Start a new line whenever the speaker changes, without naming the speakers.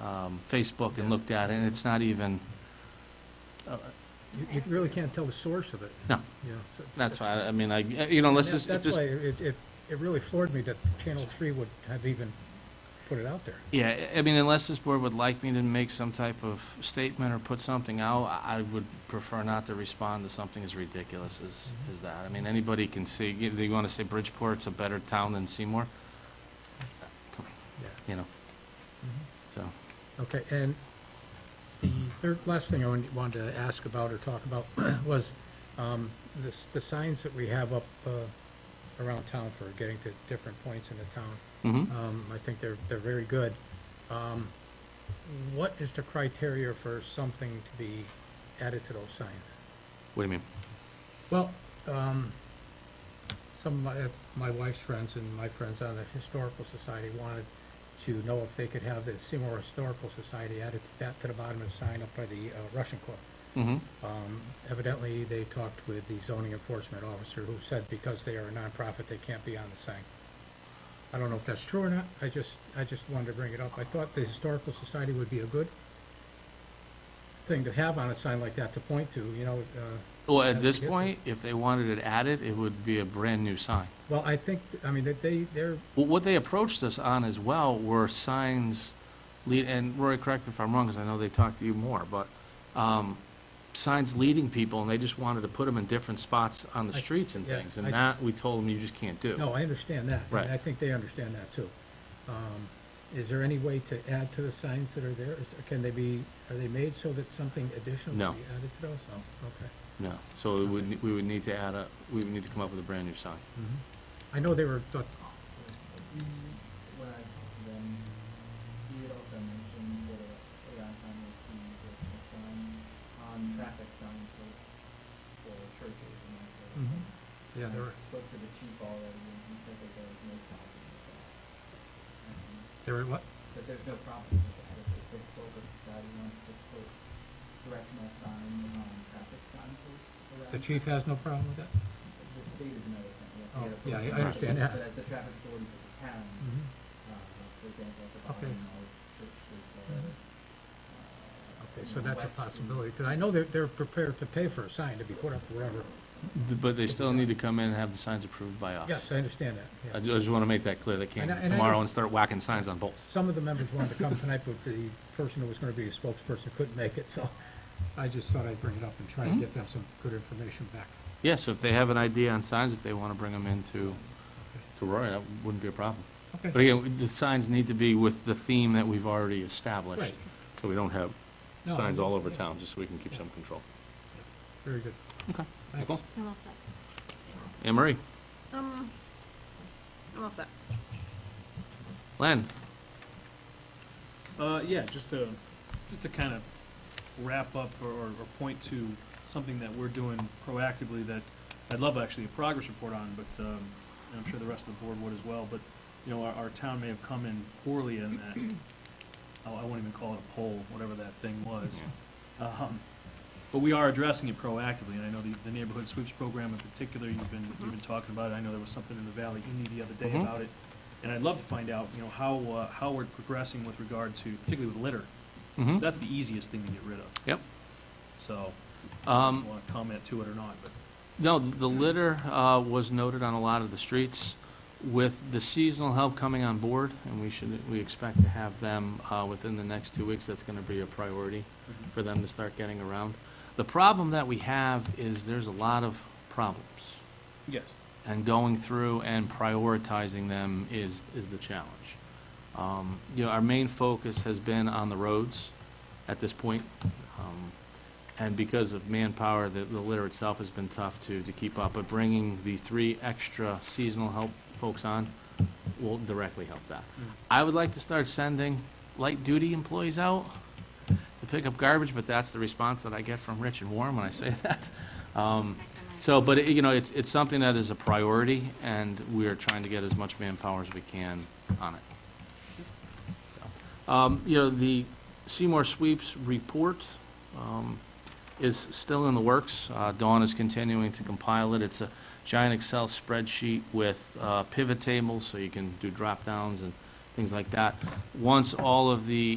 um, Facebook and looked at it, and it's not even, uh,
You, you really can't tell the source of it,
no,
you know. so-
that's why, I mean, I, you know, unless
That's
it's, if
that's
this
why it, it, it really floored me that Channel Three would have even put it out there.
Yeah, I I mean, unless this board would like me to make some type of statement or put something out, I I would prefer not to respond to something as ridiculous as,
Mm-hmm.
as that. I mean, anybody can see, you- they want to say Bridgeport's a better town than Seymour,
Yeah. Mm-hmm.
you know, so.
Okay, and the third, last thing I wanted- wanted to ask about or talk about was um, this, the signs that we have up uh, around town for getting to different points in the town.
mhm.
Um, I think they're, they're very good. Um, What is the criteria for something to be added to those signs?
What do you mean?
uh, Well, um, some of my, my wife's friends and my friends on the Historical Society wanted to know if they could have the Seymour Historical Society added to that to the bottom of the sign up by the uh, Russian Club.
Mhm.
Um, evidently, they talked with the zoning enforcement officer who said because they are a nonprofit, they can't be on the sign. I don't know if that's true or not. I just, I just wanted to bring it up. I thought the Historical Society would be a good thing to have on a sign like that to point to, you know, uh,
Well,
How'd
at
you
this
get to-
point, if they wanted it added, it would be a brand-new sign.
Well, I think, I mean, that they, they're,
Well, What they approached us on as well were signs, lead- and Rory, correct me if I'm wrong, because I know they talked to you more, but um, signs leading people, and they just wanted to put them in different spots on the
I-
streets and
yeah,
things, and
I-
that, we told them, you just can't do.
no, I understand that. and
Right.
I think they understand that too. Um, Is there any way to add to the signs that are there? Is- Can they be, are they made so that something additional
No.
can be added to those? Oh, okay.
No, so we would, ne- we would need to add a, we would need to come up with a brand-new sign.
I know they were, thought-
we, when I talked to them, he had also mentioned that around time was he was a sign on traffic sign for, for churches and that sort of thing.
Mm-hmm. yeah,
I
there were,
Spoke to the chief already and he said that there was no problem with that. Um,
there were what?
That there's no problem with that, if the historical society wants to put directional signs on traffic signposts around.
The chief has no problem with that?
The state is another thing, yes.
Oh, yeah, I- I understand that. Mm-hmm.
But as the traffic authority for the town, uh, for example, at the
Okay. Mm-hmm.
bottom of Church Street there. uh,
Okay,
you
so
know,
that's a
West Street.
possibility, because I know they're, they're prepared to pay for a sign to be put up wherever.
But they still need to come in and have the signs approved by us.
Yes, I understand that, yeah.
I ju- I just want to make that clear, they
And I-
can't
and I
tomorrow
don't-
and start whacking signs on bolts.
Some of the members wanted to come tonight, but the person who was going to be a spokesperson couldn't make it, so I just thought I'd bring it up and try and get them some good information back.
Yeah, so if they have an idea on signs, if they want to bring them into, to Rory, that wouldn't be a problem. But
Okay,
again, the signs need to be with the theme that we've already established,
Right.
so we don't have
No,
signs all over
yeah.
town, just so we can keep some control.
very good.
Okay.
Thanks.
Nicole?
I'm all set.
Anne Marie?
Um, I'm all set.
Len?
Uh, yeah, just to, just to kind of wrap up or, or or point to something that we're doing proactively that I'd love actually a progress report on, but, um, and I'm sure the rest of the board would as well, but, you know, our, our town may have come in poorly in that, oh, I won't even call it a poll, whatever that thing was. Um, But we are addressing it proactively, and I know the, the neighborhood sweeps program in particular, you've been, you've been talking about it, I know there was something in the Valley Indy the other day
Mhm.
about it. And I'd love to find out, you know, how, uh, how we're progressing with regard to, particularly with litter, 'cause
Mm-hmm.
that's the easiest thing to get rid of,
Yep.
so, I
Um,
don't wanna comment to it or not, but.
No, the litter uh, was noted on a lot of the streets. With the seasonal help coming on board, and we should, we expect to have them uh, within the next two weeks, that's going to be a priority
Mm-hmm.
for them to start getting around. The problem that we have is there's a lot of problems.
Yes.
and going through and prioritizing them is, is the challenge. Um, You know, our main focus has been on the roads at this point. um, And because of manpower, the, the litter itself has been tough to, to keep up. But bringing the three extra seasonal help folks on will directly help that. I would like to start sending light-duty employees out to pick up garbage, but that's the response that I get from Rich and Warren when I say that. Um, so, but, it- you know, it's, it's something that is a priority, and we are trying to get as much manpower as we can on it. So, Um, you know, the Seymour Sweeps report, um, is still in the works. Uh, Dawn is continuing to compile it. It's a giant Excel spreadsheet with, uh, pivot tables, so you can do drop downs and things like that. Once all of the